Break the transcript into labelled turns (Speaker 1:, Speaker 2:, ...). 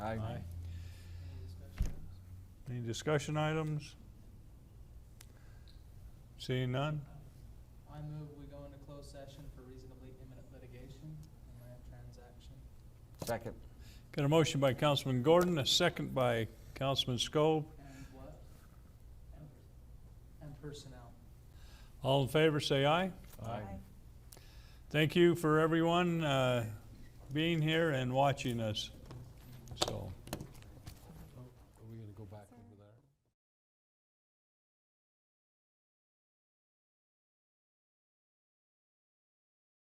Speaker 1: Aye.
Speaker 2: Any discussion items? Seeing none?
Speaker 3: I move we go into closed session for reasonably imminent litigation and land transaction.
Speaker 1: Second.
Speaker 2: Got a motion by Councilman Gordon, a second by Councilman Schob.
Speaker 3: And what? And- And personnel.
Speaker 2: All in favor, say aye. Thank you for everyone uh, being here and watching us.